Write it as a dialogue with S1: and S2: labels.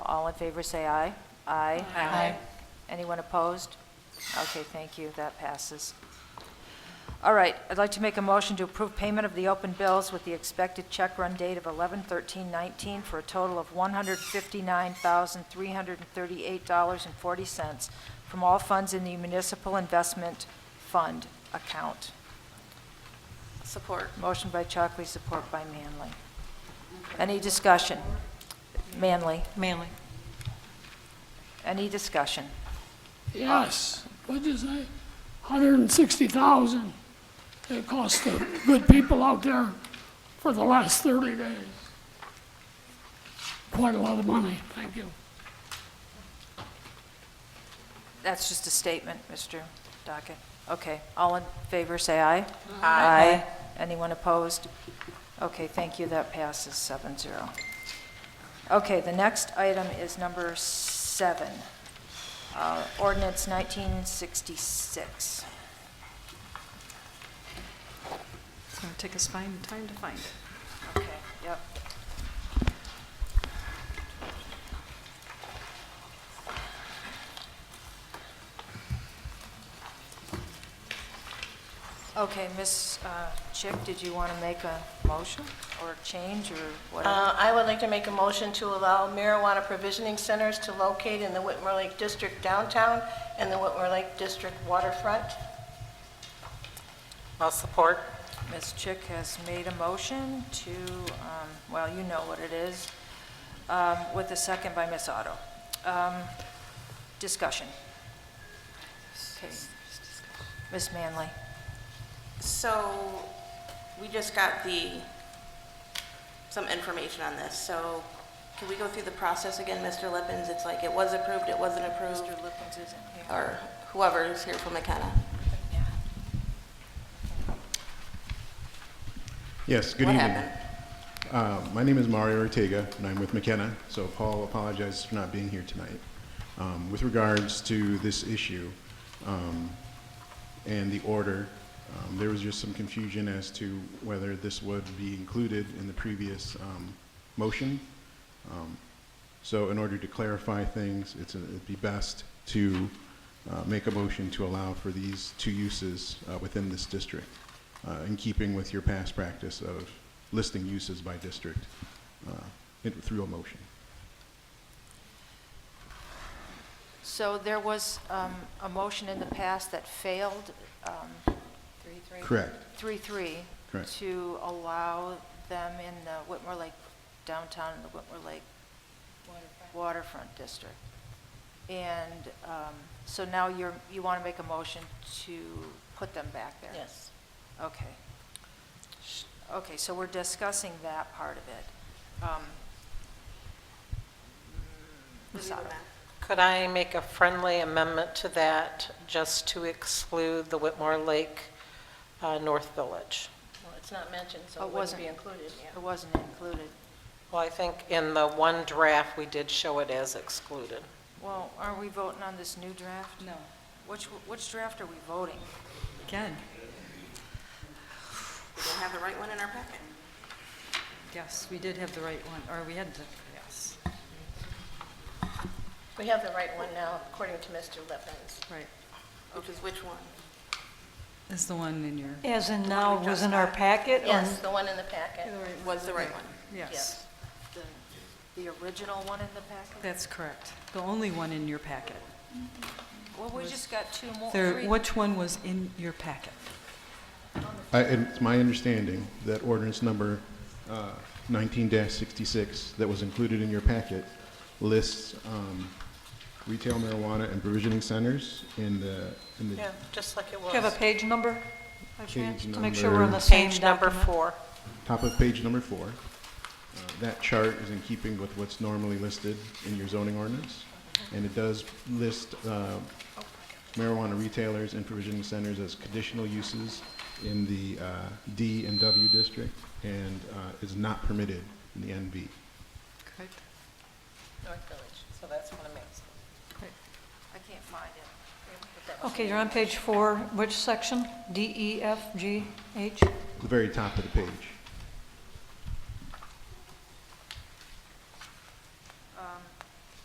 S1: in favor, say aye. Aye.
S2: Aye.
S1: Anyone opposed? Okay, thank you, that passes. All right, I'd like to make a motion to approve payment of the open bills with the expected check run date of 11/13/19 for a total of $159,338.40 from all funds in the Municipal Investment Fund account.
S2: Support.
S1: Motion by Chockley, support by Manley. Any discussion? Manley,
S2: Manley.
S1: any discussion?
S3: Yes, what'd you say? Hundred and sixty thousand it cost the good people out there for the last thirty days. Quite a lot of money, thank you.
S1: That's just a statement, Mr. Dockett. Okay, all in favor, say aye. Aye. Anyone opposed? Okay, thank you, that passes seven zero. Okay, the next item is number seven, uh, ordinance 1966.
S2: It's going to take us find, time to find it.
S1: Okay, yep. Okay, Ms. uh, Chick, did you want to make a motion or change or whatever?
S4: Uh, I would like to make a motion to allow marijuana provisioning centers to locate in the Whitmore Lake District downtown and the Whitmore Lake District waterfront.
S5: I'll support.
S1: Ms. Chick has made a motion to, um, well, you know what it is, um, with a second by Ms. Otto. Um, Discussion. Okay. Ms. Manley?
S6: So, we just got the, some information on this, so can we go through the process again, Mr. Lippens? It's like it was approved, it wasn't approved,
S1: Mr. Lippens isn't here.
S6: or whoever's here from McKenna.
S7: Yes, good
S6: What
S7: evening.
S6: happened?
S7: Uh, My name is Mario Ortega, and I'm with McKenna, so Paul apologizes for not being here tonight. Um, With regards to this issue um, and the order, um, there was just some confusion as to whether this would be included in the previous um, motion. Um, So in order to clarify things, it's, a- it'd be best to uh, make a motion to allow for these two uses uh, within this district, uh, in keeping with your past practice of listing uses by district uh, in- through a motion.
S1: So there was um, a motion in the past that failed, um,
S7: Correct.
S1: 3-3,
S7: Correct.
S1: to allow them in the Whitmore Lake, downtown in the Whitmore Lake waterfront district. And um, so now you're, you want to make a motion to put them back there?
S4: Yes.
S1: Okay. Sh- Okay, so we're discussing that part of it. Um, Ms. Otto.
S5: Could I make a friendly amendment to that, just to exclude the Whitmore Lake uh, North Village?
S4: Well, it's not mentioned, so
S1: Oh, it
S4: it
S1: wasn't.
S4: wouldn't be included, yeah.
S1: It wasn't included.
S5: Well, I think in the one draft, we did show it as excluded.
S1: Well, are we voting on this new draft?
S2: No.
S1: Which, which draft are we voting?
S2: Again,
S6: We don't have the right one in our packet.
S2: yes, we did have the right one, or we had the, yes,
S4: We have the right one now, according to Mr. Lippens.
S2: right.
S6: Which is which one?
S2: Is the one in your,
S8: As in now, was in our packet? or-
S4: Yes, the one in the packet.
S6: Was the right one?
S2: yes,
S4: Yes.
S1: The, the original one in the packet?
S2: that's correct. The only one in your packet.
S1: Well, we just got two more,
S2: There,
S1: three.
S2: which one was in your packet?
S7: I- and It's my understanding that ordinance number uh, 19-66 that was included in your packet lists um, retail marijuana and provisioning centers in the, in the
S5: Yeah, just like it
S8: Do you have
S5: was.
S8: a page number? by
S7: Page
S8: chance, To make sure we're on
S7: number-
S8: the same
S5: Page number
S8: document?
S5: four.
S7: top of page number four. Uh, That chart is in keeping with what's normally listed in your zoning ordinance, and it does list uh, marijuana retailers and provisioning centers as conditional uses in the uh, D and W district, and uh, is not permitted in the NB.
S2: Correct.
S4: North Village.
S5: So that's what it means.
S1: I can't find it.
S8: Okay, you're on page four, which section? D, E, F, G, H?
S7: The very top of the page.